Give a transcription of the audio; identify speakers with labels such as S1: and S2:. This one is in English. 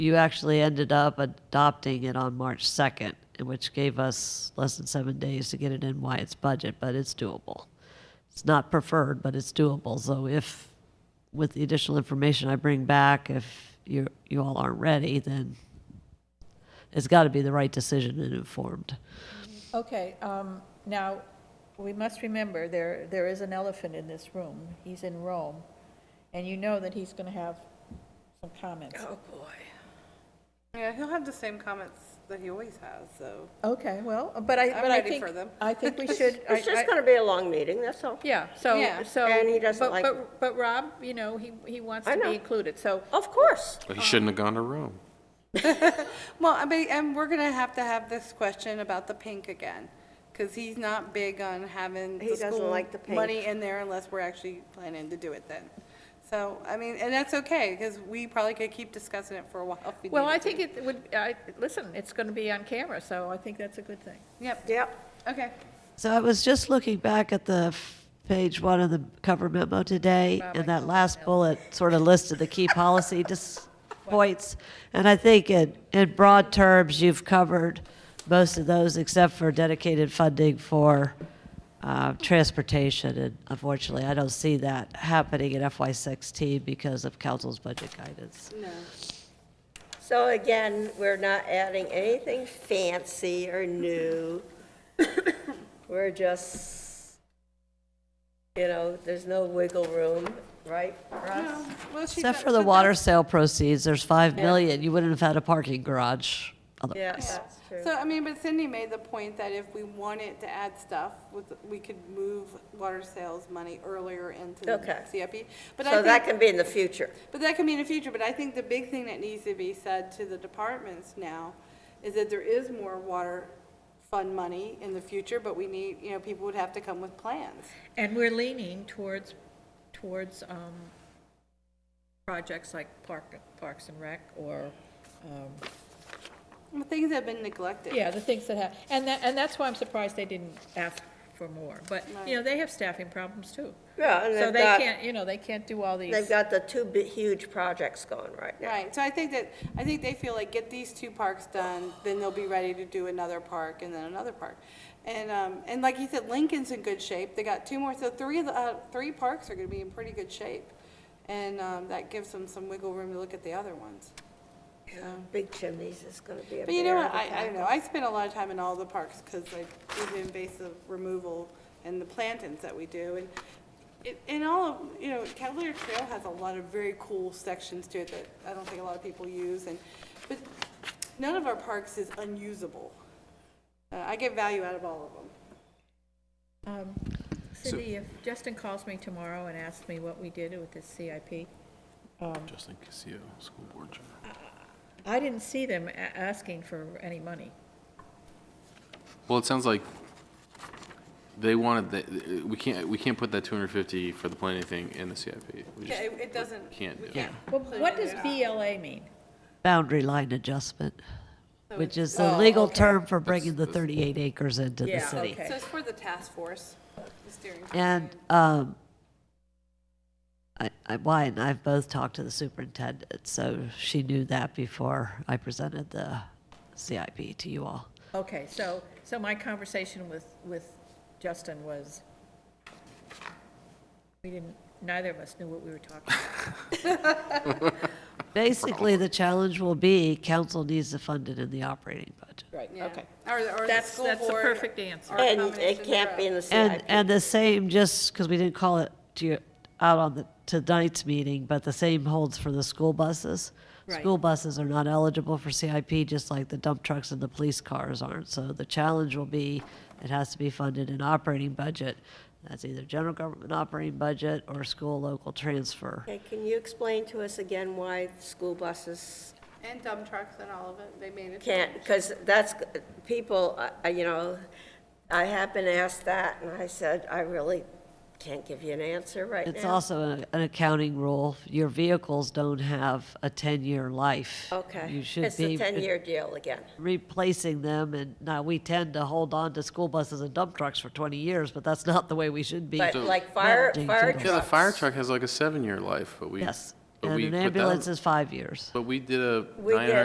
S1: You actually ended up adopting it on March 2nd, which gave us less than seven days to get it in Wyatt's budget, but it's doable. It's not preferred, but it's doable. So if, with the additional information I bring back, if you, you all aren't ready, then it's got to be the right decision and informed.
S2: Okay, um, now, we must remember, there, there is an elephant in this room. He's in Rome, and you know that he's going to have some comments.
S3: Oh, boy. Yeah, he'll have the same comments that he always has, so.
S2: Okay, well, but I,
S3: I'm
S2: but I
S3: ready
S2: think,
S3: for them.
S2: I think we should, I-
S4: It's just
S2: I-
S4: gonna be a long meeting, that's all.
S3: Yeah, so,
S2: Yeah.
S3: so.
S4: And he doesn't
S3: but-
S4: like
S3: But, but Rob, you know, he, he wants
S4: I
S3: to
S4: know.
S3: be included, so.
S4: Of course.
S5: Well, He shouldn't have gone to Rome.
S3: Well, I mean, and we're gonna have to have this question about the pink again, because he's not big on having
S4: He
S3: the
S4: doesn't
S3: school
S4: like the pink.
S3: money in there unless we're actually planning to do it then. So, I mean, and that's okay, because we probably could keep discussing it for a while. if we
S2: well,
S3: needed
S2: I
S3: to.
S2: think it would, I, listen, it's going to be on camera, so I think that's a good thing.
S3: Yep,
S4: Yep.
S3: okay.
S1: So I was just looking back at the f- page one of the cover memo today, and that last bullet sort of listed the key policy dis- points. And I think in, in broad terms, you've covered most of those except for dedicated funding for uh, transportation. And unfortunately, I don't see that happening in FY16 because of council's budget guidance.
S4: So again, we're not adding anything fancy or new. We're just, you know, there's no wiggle room, right, Russ?
S3: Well, she
S1: Except
S3: does-
S1: for the
S3: but
S1: water
S3: that's-
S1: sale proceeds, there's 5 million. You wouldn't have had a parking garage
S4: Yeah,
S1: otherwise.
S4: that's true.
S3: So, I mean, but Cindy made the point that if we wanted to add stuff, with- we could move water sales money earlier into
S4: Okay.
S3: the CIP. But I
S4: So that
S3: think-
S4: can be in the future.
S3: But that can be in the future, but I think the big thing that needs to be said to the departments now is that there is more water fund money in the future, but we need, you know, people would have to come with plans.
S2: And we're leaning towards, towards um, projects like Park, Parks and Rec or, um,
S3: Well, Things have been neglected.
S2: yeah, the things that have, and that, and that's why I'm surprised they didn't ask for more. But, you know, they have staffing problems too.
S4: Yeah, and
S2: So
S4: they've
S2: they
S4: got,
S2: can't, you know, they can't do all these.
S4: they've got the two big, huge projects going right now.
S3: Right, so I think that, I think they feel like, get these two parks done, then they'll be ready to do another park and then another park. And, um, and like you said, Lincoln's in good shape, they got two more, so three of the, uh, three parks are gonna be in pretty good shape. And, um, that gives them some wiggle room to look at the other ones.
S4: Big chimneys is gonna be a
S3: But you know
S4: bear
S3: what,
S4: of a
S3: I, I don't
S4: tackle.
S3: know, I spend a lot of time in all the parks, because like, with the invasive removal and the plantings that we do, and it, and all of, you know, Cavalier Trail has a lot of very cool sections to it that I don't think a lot of people use, and, but none of our parks is unusable. Uh, I get value out of all of them.
S2: Um, Cindy, if Justin calls me tomorrow and asks me what we did with this CIP,
S5: Justin Casio, school board chair.
S2: I didn't see them a- asking for any money.
S5: Well, it sounds like they wanted, the- we can't, we can't put that 250 for the planning thing in the CIP. We
S3: Yeah,
S5: just
S3: it, it doesn't.
S5: can't do it.
S2: Well, what does BLA mean?
S1: boundary line adjustment, which is the
S2: Oh,
S1: legal
S2: okay.
S1: term for bringing the 38 acres into the
S2: Yeah,
S1: city.
S2: okay.
S3: So it's for the task force, the steering.
S1: And um, I, I, Wyatt and I have both talked to the superintendent, so she knew that before I presented the CIP to you all.
S2: Okay, so, so my conversation with, with Justin was, we didn't, neither of us knew what we were talking about.
S1: Basically, the challenge will be council needs to fund it in the operating budget.
S2: Right,
S3: yeah. Or, or the
S2: That's,
S3: school
S2: that's the
S3: board,
S2: perfect answer.
S3: Or
S4: And
S3: combination
S4: it can't be in the
S1: And,
S4: CIP.
S1: and the same, just because we didn't call it to you, out on the, tonight's meeting, but the same holds for the school buses.
S2: Right.
S1: School buses are not eligible for CIP, just like the dump trucks and the police cars aren't. So the challenge will be, it has to be funded in operating budget. That's either general government operating budget or school local transfer.
S4: Okay, can you explain to us again why school buses
S3: And dump trucks and all of it, they made it.
S4: can't, because that's, people, uh, you know, I have been asked that, and I said, I really can't give you an answer right now.
S1: It's also a- an accounting rule. Your vehicles don't have a 10-year life.
S4: Okay.
S1: You should
S4: It's a
S1: be
S4: 10-year deal again.
S1: replacing them, and now we tend to hold on to school buses and dump trucks for 20 years, but that's not the way we should be.
S4: But like fire,
S1: managing
S4: fire
S1: things.
S5: Yeah, the fire
S4: trucks,
S5: truck has like a seven-year life, but we.
S1: Yes,
S5: But
S1: and
S5: we
S1: an
S5: put that-
S1: ambulance is five years.
S5: But we did a
S4: We
S5: nine
S4: did.